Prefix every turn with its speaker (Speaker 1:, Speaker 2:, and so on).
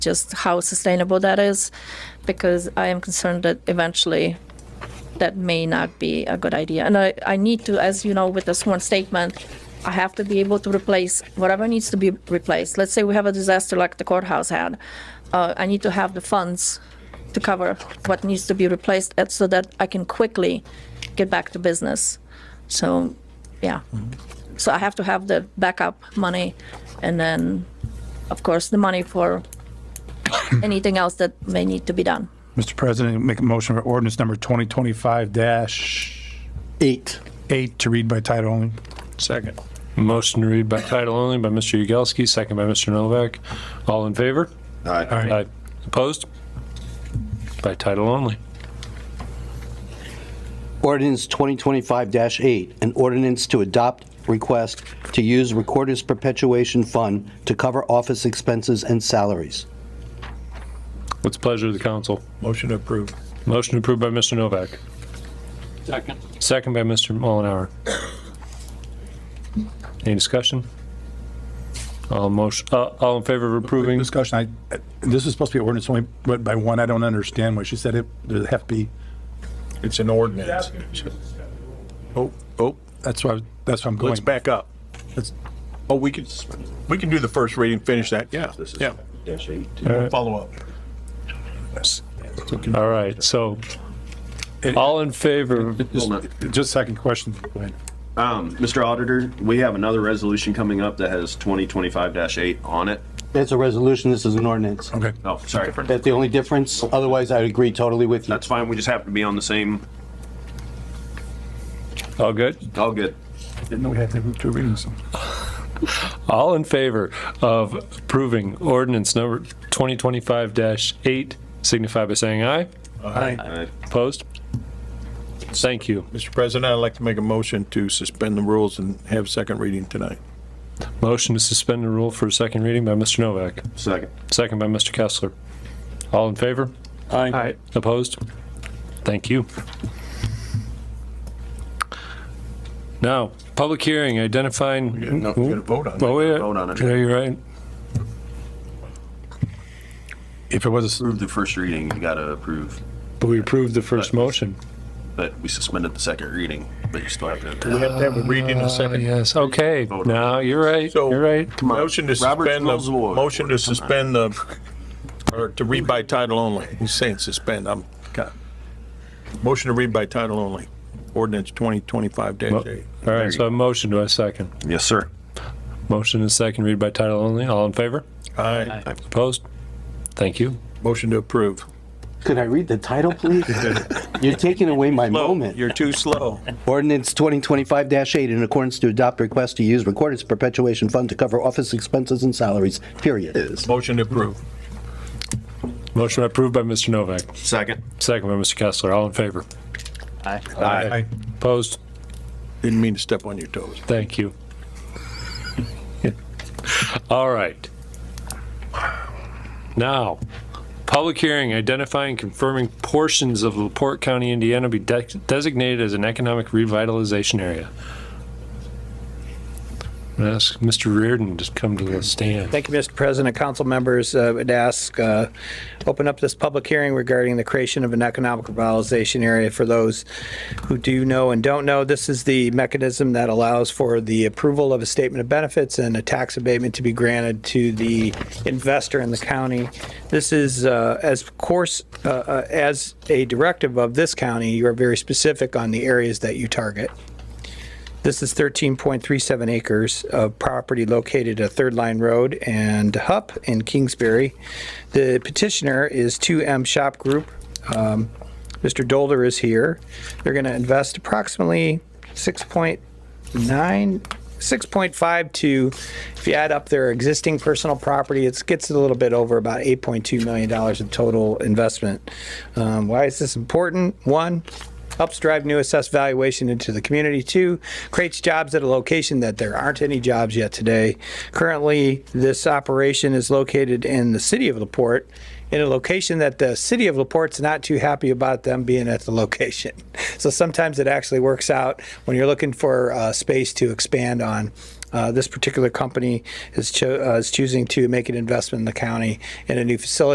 Speaker 1: just how sustainable that is, because I am concerned that eventually that may not be a good idea. And I, I need to, as you know, with the sworn statement, I have to be able to replace whatever needs to be replaced. Let's say we have a disaster like the courthouse had. Uh, I need to have the funds to cover what needs to be replaced uh, so that I can quickly get back to business. So, yeah. So I have to have the backup money and then, of course, the money for anything else that may need to be done.
Speaker 2: Mr. President, make a motion for ordinance number 2025-8
Speaker 3: Eight.
Speaker 2: to read by title only. Second.
Speaker 4: Motion to read by title only by Mr. Yagowski, second by Mr. Novak. All in favor? Aye. Opposed? By title only.
Speaker 3: Ordinance 2025-8, an ordinance to adopt request to use Recorder's Perpetuation Fund to cover office expenses and salaries.
Speaker 4: What's the pleasure of the council?
Speaker 2: Motion to approve.
Speaker 4: Motion approved by Mr. Novak. Second. Second by Mr. Mullenhour. Any discussion? All motion, uh, all in favor of approving?
Speaker 2: Discussion, I, this is supposed to be ordinance only, but by one, I don't understand what she said. It, does it have to be?
Speaker 5: It's an ordinance.
Speaker 2: Oh, oh, that's why, that's why I'm going.
Speaker 5: Let's back up.
Speaker 2: Let's-
Speaker 5: Oh, we could, we can do the first reading, finish that, yeah, yeah. Follow up.
Speaker 4: All right, so all in favor,
Speaker 2: Just a second question. Go ahead.
Speaker 6: Um, Mr. Auditor, we have another resolution coming up that has twenty twenty-five eight on it.
Speaker 3: That's a resolution, this is an ordinance.
Speaker 2: Okay.
Speaker 6: Oh, sorry.
Speaker 3: That's the only difference, otherwise I'd agree totally with you.
Speaker 6: That's fine. We just happen to be on the same.
Speaker 4: all good?
Speaker 6: All good.
Speaker 2: Didn't know we had to do two readings.
Speaker 4: All in favor of approving ordinance number 2025-8, signify by saying aye.
Speaker 6: Uh,
Speaker 4: Opposed? Thank you.
Speaker 5: Mr. President, I'd like to make a motion to suspend the rules and have second reading tonight.
Speaker 4: Motion to suspend the rule for a second reading by Mr. Novak,
Speaker 6: Second.
Speaker 4: second by Mr. Kessler. All in favor? Aye. Opposed? Thank you. Now, public hearing identifying,
Speaker 5: No, we're gonna vote on
Speaker 4: oh,
Speaker 5: it.
Speaker 4: wait,
Speaker 6: Vote on it.
Speaker 4: yeah, you're right.
Speaker 2: If it was,
Speaker 6: Approve the first reading. You gotta approve,
Speaker 4: But we approved the first motion.
Speaker 6: but we suspended the second reading, but you still have
Speaker 5: We
Speaker 6: to.
Speaker 5: have to have a reading and a second.
Speaker 4: Yes, okay.
Speaker 6: Vote on it.
Speaker 4: Now, you're right,
Speaker 5: So-
Speaker 4: you're right.
Speaker 6: on.
Speaker 5: Motion to
Speaker 6: Robert's
Speaker 5: suspend the,
Speaker 6: rules of order.
Speaker 5: motion to suspend the, or to read by title only. He's saying suspend, I'm, God. Motion to read by title only, ordinance twenty twenty-five dash eight.
Speaker 4: All
Speaker 6: There
Speaker 4: right,
Speaker 6: you
Speaker 4: so a motion, do I second?
Speaker 6: Yes, sir.
Speaker 4: Motion is second, read by title only. All in favor?
Speaker 5: Aye.
Speaker 4: Opposed? Thank you.
Speaker 5: Motion to approve.
Speaker 3: Could I read the title, please? You're taking away my moment.
Speaker 5: You're too slow.
Speaker 3: Ordinance 2025-8, in accordance to adopt request to use Recorder's Perpetuation Fund to cover office expenses and salaries, period.
Speaker 5: Motion to approve.
Speaker 4: Motion approved by Mr. Novak,
Speaker 6: Second.
Speaker 4: second by Mr. Kessler. All in favor?
Speaker 2: I,
Speaker 4: Opposed?
Speaker 5: Didn't mean to step on your toes.
Speaker 4: Thank you. All right. Now, public hearing identifying confirming portions of LaPorte County, Indiana be de- designated as an economic revitalization area. I'm gonna Ask Mr. Reardon to come to the stand.
Speaker 7: Thank you, Mr. President. Council members, uh, would ask, uh, open up this public hearing regarding the creation of an economic revitalization area. For those who do know and don't know, this is the mechanism that allows for the approval of a statement of benefits and a tax abatement to be granted to the investor in the county. This is, uh, as course, uh, uh, as a directive of this county, you are very specific on the areas that you target. This is 13.37 acres of property located at Third Line Road and Hupp in Kingsbury. The petitioner is 2M Shop Group. Um, Mr. Dolder is here. They're going to invest approximately 6.9, 6.5 to, if you add up their existing personal property, it gets a little bit over about $8.2 million in total investment. Um, Why is this important? One, helps drive new assessed valuation into the community. Two, creates jobs at a location that there aren't any jobs yet today. Currently, this operation is located in the city of LaPorte, in a location that the city of LaPorte's not too happy about them being at the location. So sometimes it actually works out when you're looking for uh, space to expand on. Uh, This particular company is cho- uh, is choosing to make an investment in the county in a new facility